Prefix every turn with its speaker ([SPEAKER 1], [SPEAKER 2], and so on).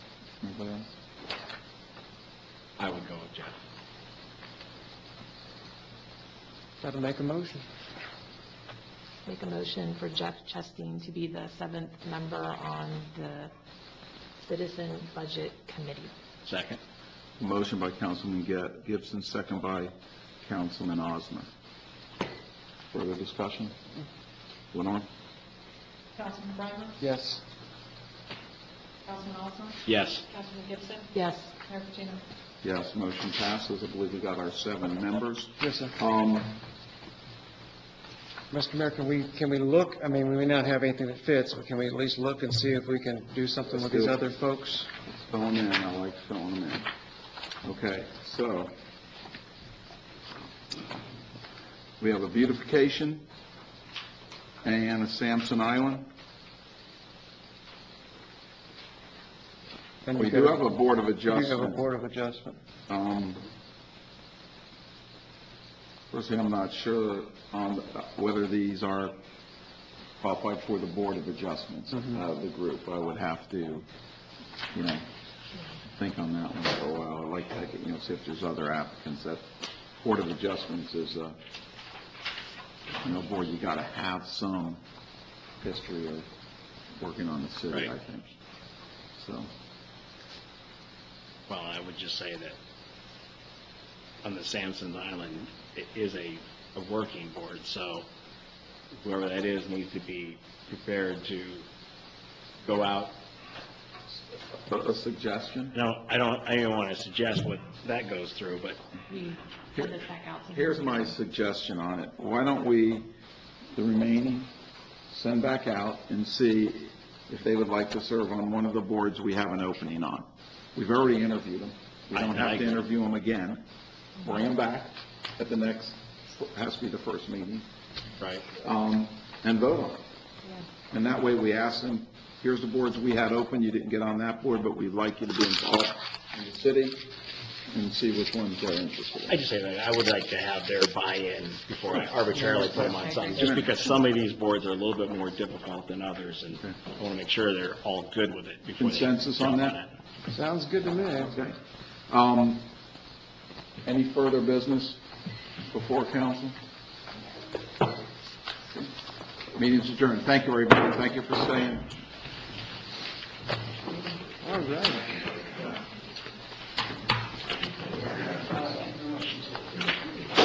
[SPEAKER 1] Anybody else?
[SPEAKER 2] I would go with Jeff.
[SPEAKER 3] Got to make a motion.
[SPEAKER 4] Make a motion for Jeff Chastain to be the seventh member on the Citizen Budget Committee.
[SPEAKER 2] Second?
[SPEAKER 1] Motion by Councilman Gi- Gibson, second by Councilman Osmer. Further discussion? Lenore?
[SPEAKER 5] Councilman Breimer?
[SPEAKER 3] Yes.
[SPEAKER 5] Councilman Osmer?
[SPEAKER 2] Yes.
[SPEAKER 5] Councilman Gibson?
[SPEAKER 4] Yes.
[SPEAKER 5] Mayor Patino?
[SPEAKER 1] Yes, motion passes. I believe we got our seven members.
[SPEAKER 3] Yes, sir.
[SPEAKER 1] Um,
[SPEAKER 3] Mr. Mayor, can we, can we look, I mean, we may not have anything that fits, but can we at least look and see if we can do something with these
[SPEAKER 1] Let's do
[SPEAKER 3] other folks?
[SPEAKER 1] fill them in, I like filling them in. Okay, so, we have a beautification and a Sampson Island.
[SPEAKER 3] And
[SPEAKER 1] We do have a
[SPEAKER 3] we
[SPEAKER 1] Board of
[SPEAKER 3] do have a
[SPEAKER 1] Adjustment.
[SPEAKER 3] Board of Adjustment.
[SPEAKER 1] Um, Firstly, I'm not sure on whether these are qualified for the Board of Adjustments of the group. I would have to, you know, think on that one for a while. I'd like to, you know, see if there's other applicants. That Board of Adjustments is a, you know, board, you got to have some history of working on the city, I
[SPEAKER 2] Right.
[SPEAKER 1] think. So,
[SPEAKER 2] Well, I would just say that on the Samson Island, it is a, a working board, so whoever that is needs to be prepared to go out.
[SPEAKER 1] but a suggestion?
[SPEAKER 2] No, I don't, I don't want to suggest what that goes through, but
[SPEAKER 4] We send this back out to him.
[SPEAKER 1] Here's my suggestion on it. Why don't we, the remaining, send back out and see if they would like to serve on one of the boards we have an opening on. We've already interviewed them. We don't have to interview them again. Bring them back at the next, has to be the first meeting,
[SPEAKER 2] Right.
[SPEAKER 1] um, and vote on it.
[SPEAKER 4] Yeah.
[SPEAKER 1] And that way, we ask them, here's the boards we had open, you didn't get on that board, but we'd like you to be involved in the city, and see which ones they're interested in.
[SPEAKER 2] I just say that, I would like to have their buy-in before I arbitrarily put them on something, just because some of these boards are a little bit more difficult than others, and I want to make sure they're all good with it before they
[SPEAKER 1] Consensus on
[SPEAKER 2] jump
[SPEAKER 1] that?
[SPEAKER 2] it.
[SPEAKER 3] Sounds good to me.
[SPEAKER 1] Okay. Um, Any further business before council? Meeting's adjourned. Thank you, everybody. Thank you for staying.
[SPEAKER 3] All right.